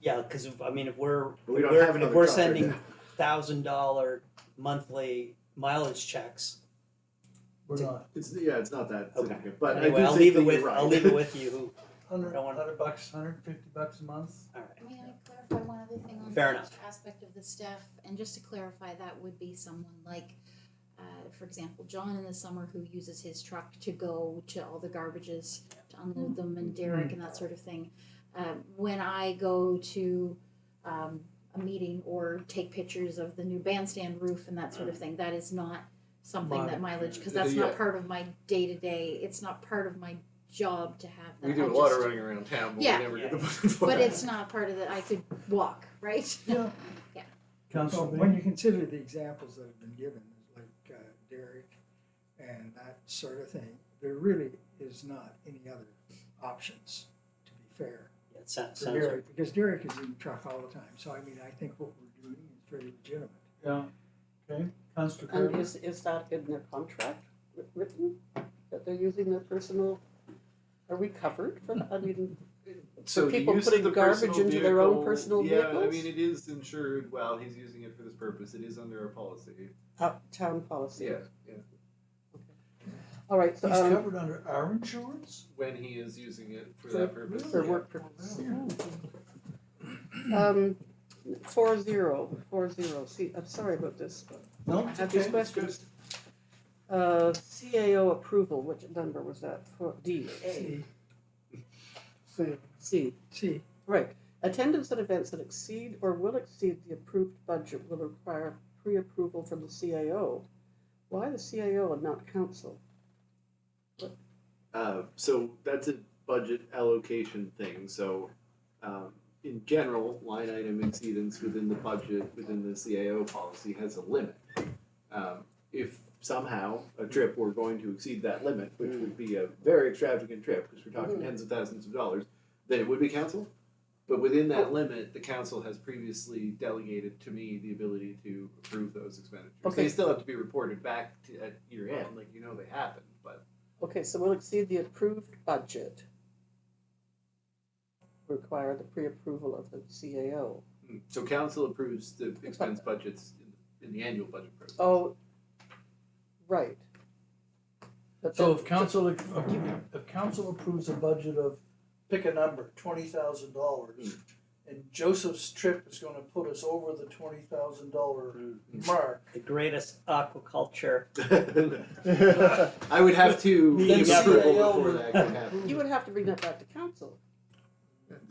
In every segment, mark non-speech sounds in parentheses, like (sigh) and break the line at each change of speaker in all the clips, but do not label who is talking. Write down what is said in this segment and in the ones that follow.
Yeah, because I mean, if we're
We don't
we're-
have another
if we're
truck right
sending
now.
thousand dollar monthly mileage checks,
We're
to-
not,
It's, yeah, it's not that
Okay.
significant, but I do
anyway, I'll
think
leave
that
it
you're
with
right.
I'll leave it with you.
(laughs)
Who,
hundred,
I wanna-
hundred bucks, hundred and fifty bucks a month.
all right.
May I clarify one other thing on the
Fair enough.
aspect of the staff? And just to clarify, that would be someone like, uh, for example, John in the summer who uses his truck to go to all the garbages to unload them and Derek and that sort of thing. Um, when I go to, um, a meeting or take pictures of the new bandstand roof and that sort of thing, that is not something that mileage, cause that's
Yeah.
not part of my day-to-day, it's not part of my job to have
(laughs)
that.
We do
I
a lot
just-
of running around town, but
Yeah.
we never
Yeah.
get the
(laughs)
money
(laughs)
for
But
it. (laughs)
it's not part of the, I could walk, right?
Yeah.
Yeah.
So
Council
when you consider the examples that have been given, like uh, Derek and that sort of thing, there really is not any other options, to be fair.
Yeah, it sounds,
For
sounds right.
Derek, because Derek is in the truck all the time, so I mean, I think what we're doing is very legitimate.
yeah, okay, Council
And
Um,
Kirby,
is, is that in their contract wri- written, that they're using their personal, are we covered for that? I mean,
so the
people
use of
putting
the
garbage
personal
into their own
vehicle-
personal
Yeah, I
vehicles?
mean, it is insured while he's using it for this purpose. It is under our policy.
out- town policy.
Yeah, yeah.
All right, so,
he's
um,
covered under our insurance?
When he is using it for
For-
that purpose.
um, for
yeah.
work purposes. Um, four zero, four zero, see, I'm sorry about this, but
No,
I
it's
have these
okay.
questions. Uh, CAO approval, which number was that, for, D?
See,
C. C.
see,
Right. Attendance at events that exceed or will exceed the approved budget will require pre-approval from the CAO. Why the CAO and not council?
Uh, so that's a budget allocation thing. So, um, in general, line item exceedance within the budget within the CAO policy has a limit. Um, if somehow a trip were going to exceed that limit, which would be a very extravagant trip because we're talking
Mm.
tens of thousands of dollars, then it would be council. But within that limit, the council has previously delegated to me the ability to approve those expenditures. They
Okay.
still have to be reported back to, at year end, like you know they happened, but
Okay, so will exceed the approved budget. Require the pre-approval of the CAO.
Mm. So council approves the expense budgets in, in the annual budget process.
Oh, right. But
So
that-
if council, if council approves a budget of, pick a number, twenty thousand dollars, and Joseph's trip is gonna put us over the twenty thousand dollar mark,
The greatest aquaculture.
(laughs)
(laughs)
(laughs)
I would have to
Then
give
CIO
approval before
would-
that could happen.
You would have to bring that back to council.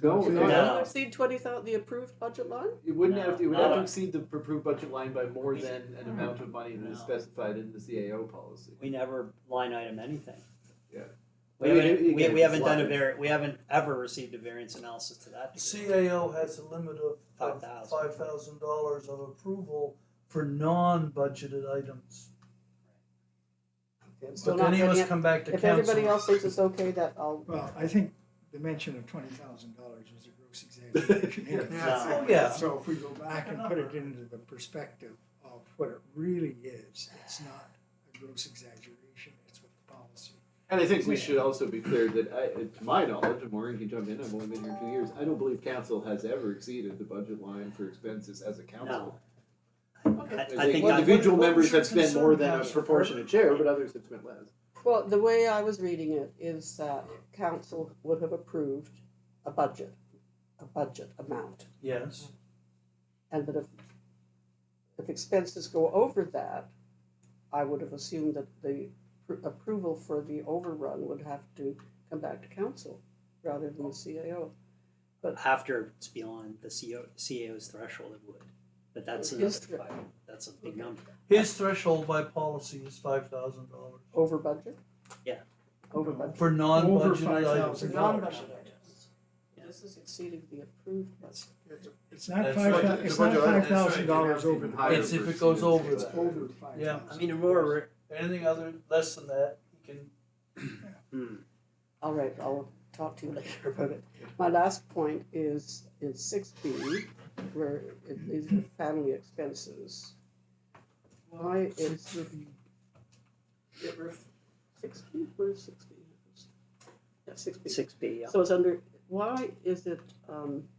No,
So
no,
(laughs)
will
No.
it exceed twenty thousand, the approved budget line?
It wouldn't have to, it would have
No.
to exceed the approved budget line by more than an amount of money that is
No.
specified in the CAO policy.
We never line item anything.
Yeah.
We
I mean,
haven't,
it-
we,
it gets
we haven't done a
slotted.
var, we haven't ever received a variance analysis to that degree.
CAO has a limit of
$5,000.
five thousand dollars of approval for non-budgeted items.
Okay, I'm
So
still
if
not
any of
getting
us
it.
come back to
If
council.
everybody else thinks it's okay, that I'll
well, I think the mention of twenty thousand dollars was a gross exaggeration.
Yeah.
Oh, yeah.
So if we go back and put it into the perspective of what it really is, it's not a gross exaggeration, it's what the policy
And I think we should also be clear that, I, to my knowledge, and Maureen can jump in, I've only been here two years, I don't believe council has ever exceeded the budget line for expenses as a council.
I,
There's
I
like
think
Well,
I-
the-
individual
what- what
members
was your
have spent more
concern,
than a
Councillor?
proportionate share, but others have spent less.
Well, the way I was reading it is that council would have approved a budget, a budget amount,
Yes,
and that if, if expenses go over that, I would have assumed that the pr- approval for the overrun would have to come back to council rather than the CAO.
after it's beyond the CO, CAO's threshold, it would. But that's another,
Yes.
five- that's a big
Okay.
number.
his threshold by policy is five thousand dollars
Over budget?
Yeah.
Over budget.
for non-budgeted items.
$5,000.
items. This is exceeding the approved budget.
It's- It's not
That's
five,
right.
thou- it's not five thousand dollars over. the budget.
It's if it goes over
It's over five
Yeah.
I
thousand.
mean, Aurora,
Anything other, less than that, you can
hmm,
All right, I'll talk to you (laughs) later about it. My last point is in six B, where it- these are family expenses. Why is the? Six B, where's six B? Yeah, six B.
six B, yeah.
So it's under, why is it, um,